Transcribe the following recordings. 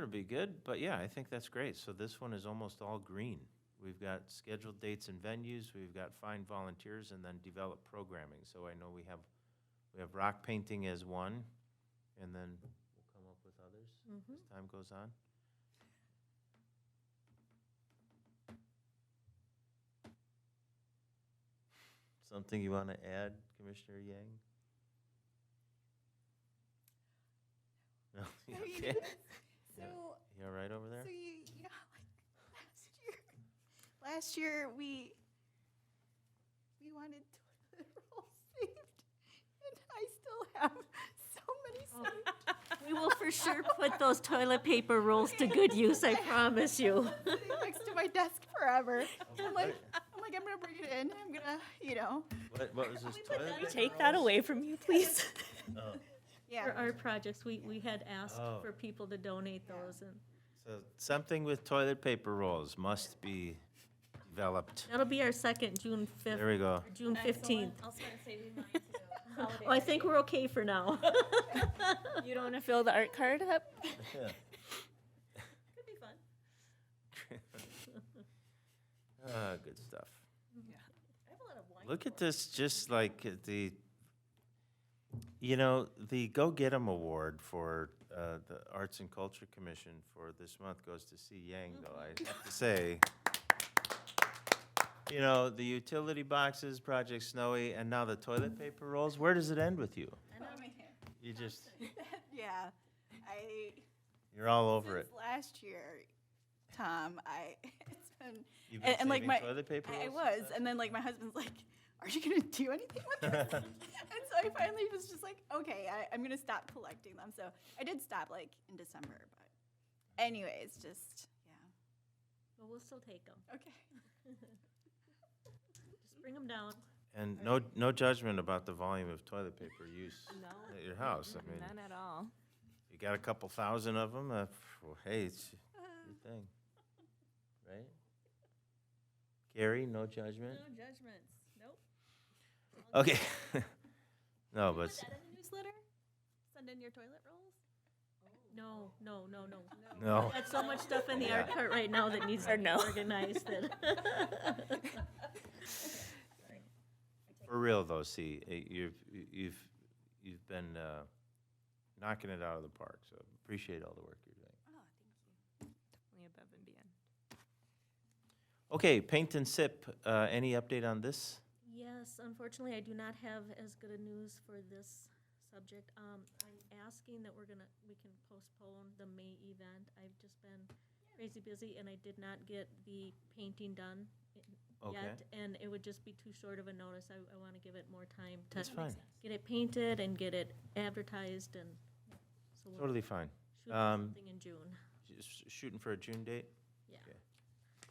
would be good, but yeah, I think that's great. So this one is almost all green. We've got scheduled dates and venues, we've got find volunteers, and then develop programming. So I know we have, we have rock painting as one, and then we'll come up with others Mm-hmm. as time goes on. Something you want to add, Commissioner Yang? No, you okay? So, You all right over so there? you, you know, like last year, last year we, we wanted toilet roll saved, and I still have so many saved. We will for sure put those toilet paper rolls to good use, I promise you. sitting next to my desk forever. I'm like, I'm like, I'm gonna bring it in. I'm gonna, you know, What, what was this toilet? Can we paper take that rolls? away from you, please? Oh, For yeah. our projects, we, we had asked Oh. for people to donate Yeah. those, and So something with toilet paper rolls must be developed. that'll be our second, June There 5th, we go. or June 15th. I was gonna say we might have to go holiday. Oh, I think we're okay for now. Could You don't wanna fill the art card up? be fun. Ah, good stuff. I have a lot of wine. Look at this, just like at the, you know, the Go Get 'Em Award for uh, the Arts and Culture Commission for this month goes to C. Yang, though, I have to say. You know, the utility boxes, Project Snowy, and now the toilet paper rolls. Where does it end with you? You just, Yeah, I, you're all over it. since last year, Tom, I, it's been, You've and- been and like saving my- toilet paper I- I rolls? was, and then like my husband's like, "Are you gonna do anything with this?" and so I finally was just like, "Okay, I, I'm gonna stop collecting them." So I did stop like in December, but anyways, just yeah, But we'll still take them. okay. Just bring them down. And no, no judgment about the volume of toilet paper use at your house. I mean, None at all. you got a couple thousand of them, uh, phew, hey, it's your thing, right? Gary, no judgment? judgments, nope. Okay. No, but, s- in the newsletter? Send in your toilet rolls? No, no, no, no. no, Got so much stuff in the Oh. Yeah. art cart right now that needs to Or be no. organized that. for real though, see, eh, you've, you've, you've been uh, knocking it out of the park, so appreciate all the work you're doing. Definitely above and beyond. Okay, paint and sip, uh, any update on this? Yes, unfortunately, I do not have as good a news for this subject. Um, I'm asking that we're gonna, we can postpone the May event. I've just been crazy busy and I did not get the painting done i- Okay, yet. And it would just be too short of a notice. I, I wanna give it more time to that's fine, get it painted and get it advertised and so we'll totally fine. shoot for Um, something in June. Just Shooting for a June date?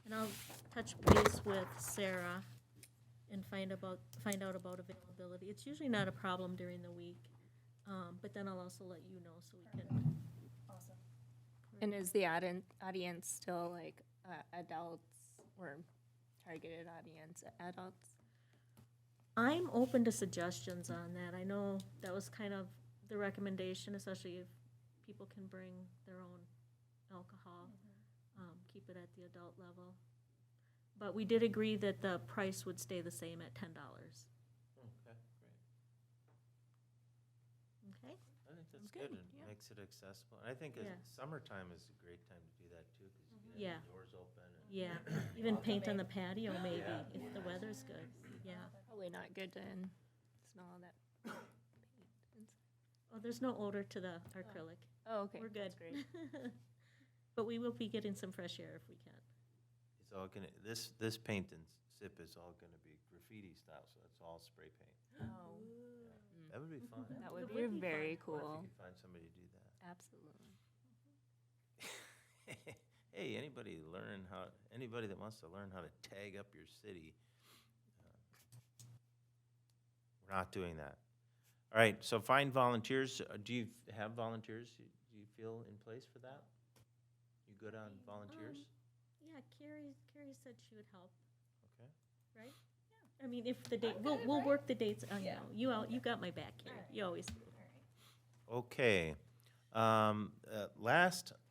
And I'll touch base with Sarah and find about, find out about availability. It's usually not a problem during the week, um, but then I'll also let you know so we can. And is the auden- audience still like uh, adults or targeted audience, adults? I'm open to suggestions on that. I know that was kind of the recommendation, especially if people can bring their own alcohol. Um, keep it at the adult level. But we did agree that the price would stay the same at ten dollars. Okay? I think that's Sounds good good, and makes it accessible. And I think uh, Yeah. summertime is a great time to do that too, because you can Yeah. have the doors open. and- Yeah, even paint on the patio maybe, Yeah. if the weather's good, yeah. Probably not good to in- smell all that. Oh, there's no odor to the acrylic, Oh, okay. we're good. that's great. But we will be getting some fresh air if we can. It's all gonna, this, this paint and sip is all gonna be graffiti style, so it's all spray paint. Oh, That would be fun. I Mm-hmm. That It would would be be fun. very wonder cool. If you could find somebody to do that. Absolutely. Hey, anybody learn how, anybody that wants to learn how to tag up your city, uh, we're not doing that. All right, so find volunteers. Uh, Do you f- have volunteers? Y- Do you feel in place for that? You good on volunteers? Yeah, Carrie, Carrie said she would help, Okay. right? I mean, if the date, we'll, we'll work the dates, I know, you all, you got my back, Carrie, you always do. Okay. Um, uh, Last